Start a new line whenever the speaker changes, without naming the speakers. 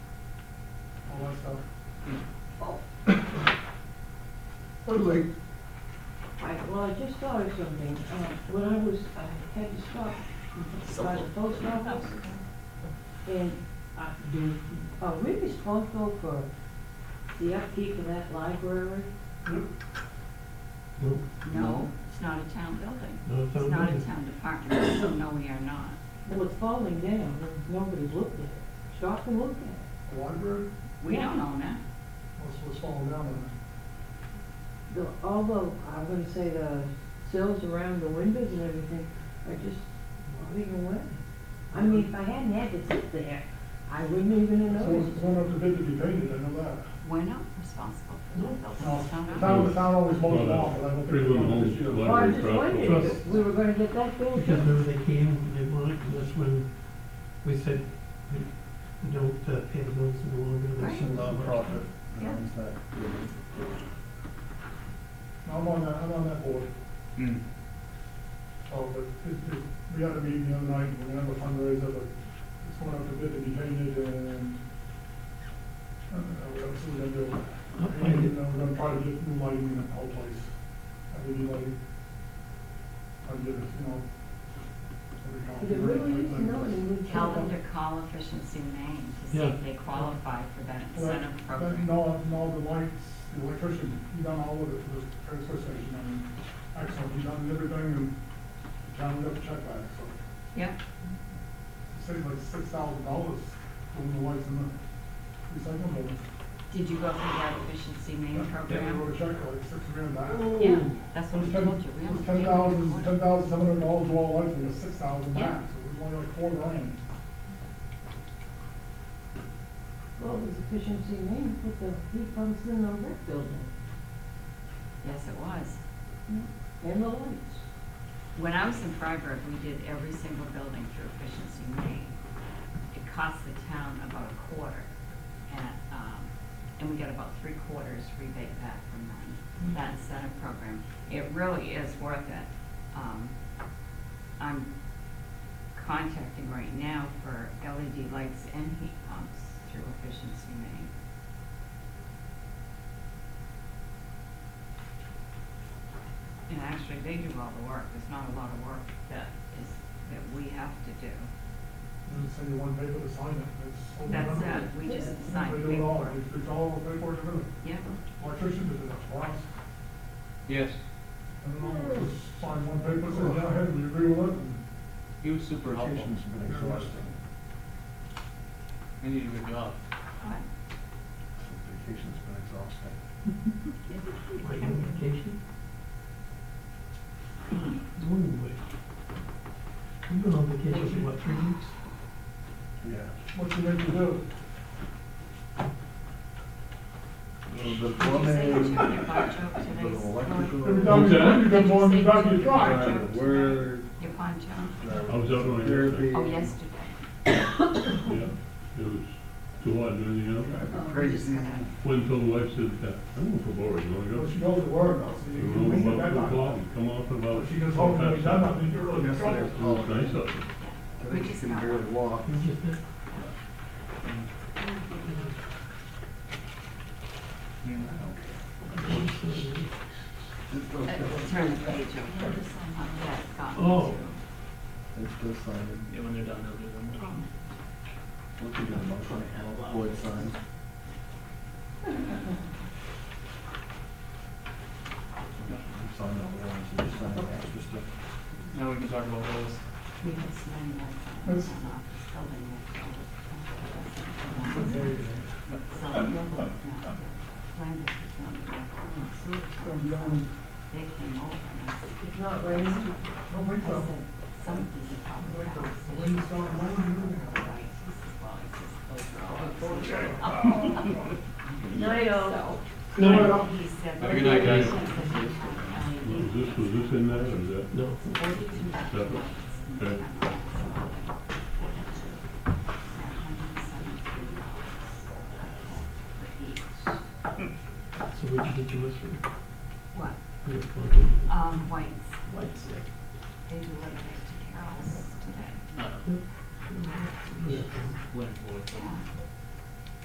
so.
Oh,
Totally.
I, well, I just thought of something. Uh, when I was, I had to stop by the post office. And I, do, are we responsible for the upkeep of that library?
No,
No, it's not a town building.
not a town
It's not a
building.
town department, so no, we are not.
Well, it's falling down, and nobody's looked at it. Stop and look at
The library,
We don't own it.
what's, what's falling down on it?
it. The, all the, I'm gonna say the sills around the windows and everything are just rotting away. I mean, if I hadn't had to sit there, I wouldn't even have
So it's
noticed.
going up to bid to be painted, I know that.
We're not responsible for that building.
No,
It's town
The
owned.
town, the town always mows it off, but I don't think.
Pretty woman owns
Yeah.
library.
Well, I just
Trust.
wondered if we were gonna get that built.
Because remember they came, and they wanted, and that's when we said, we we don't uh, pay the bills any longer.
Right.
That's
Nonprofit.
Yeah.
owns that building.
I'm on that, I'm on that board. Oh, but it, it, we had a meeting the other night, we're gonna have a fundraiser, but it's going up to bid to be painted and, I don't know, we're gonna see what we're gonna
Oh,
do.
I
And
did-
then we're gonna try to get new lighting in the whole place. I really like, I get it, you know. every
But
company,
It really is
everything.
known in
Tell them to call Efficiency Maine to see
Yeah.
if they qualify for that
Well,
incentive
but
program.
No, no, the lights, the electrician, he done all of it for the transfer station, I mean, excellent, he done everything and counted up the check back, so.
Yep,
It saved like six thousand dollars doing the lights in the recycling building.
did you go through that Efficiency Maine
They
program?
wrote a check for like six grand back.
Yeah,
It
that's what
was
we
ten,
told you. We
it
only
was
paid
ten
you
thousand, ten
quarter.
thousand seven hundred dollars to all lights, and it was six thousand
Yeah.
back, so it was only like four grand.
Well, it was efficiency name, put the heat pumps in the rec building
Yes, it was.
and the lights.
When I was in Freiburg, we did every single building through efficiency Maine. It cost the town about a quarter, and, um, and we got about three quarters rebate back from that, that incentive program. It really is worth it. Um, I'm contacting right now for LED lights and heat pumps through efficiency Maine. And actually, they do all the work, there's not a lot of work that is, that we have to do.
And it's only one paper to sign it, it's. so
That's
minimal.
it, we just sign
They do it all,
paperwork.
It's- it's all paperwork, everything.
Yeah,
electrician did it, for us.
Yes,
And I was signing one paper, said, yeah, hey, we agree with it, and
he was super helpful,
Location's been exhausting.
and he did a good job.
but
Location's been exhausting.
Like notification? No way. You've been on vacation for what, three weeks?
Yeah.
what you make to do?
Well, The
Did you say you
plumbing,
took your barge up
the
today's
electrical.
Every time you
Okay.
you come on, you got your
Right.
try.
uh, Where,
your poncho?
uh,
I was out on it yesterday.
therapy.
Oh, yesterday.
Yeah, it was too hot, you know?
Oh, we just
Crazy.
had a-
When told the wife said, I'm going for board, you wanna
Well, she goes to work, I'll see you. We get that done.
come off about.
But she goes home, and we done, I mean, you're really in trouble.
Yesterday. Oh, nice
out
I think she can barely walk. Just
Uh,
okay.
Turn the page over. Yeah, it's gone.
Oh.
It's still signed.
Yeah, when they're done, they'll do them.
Look at that motion. Boyd signed. Sign that one, so you sign the extra stuff.
Now we can talk about those.
We had some money left on
That's-
the office building. So, Landis is not
Come down,
They came over and I said,
It's not raining.
don't wait
I said,
for,
something's a problem.
wait for,
with that."
wait for someone, wait for
Right, he says, well, he says, those are all
Night, all.
So, he said.
Have a good night, guys.
Was this, was this in there, or is that? No. Separate? Okay. So what you get yours for?
What?
Your fucking
Um, whites,
lights, like,
they do like to Carol's today.
Uh,
yeah.
Leonard Floyd.
Yeah.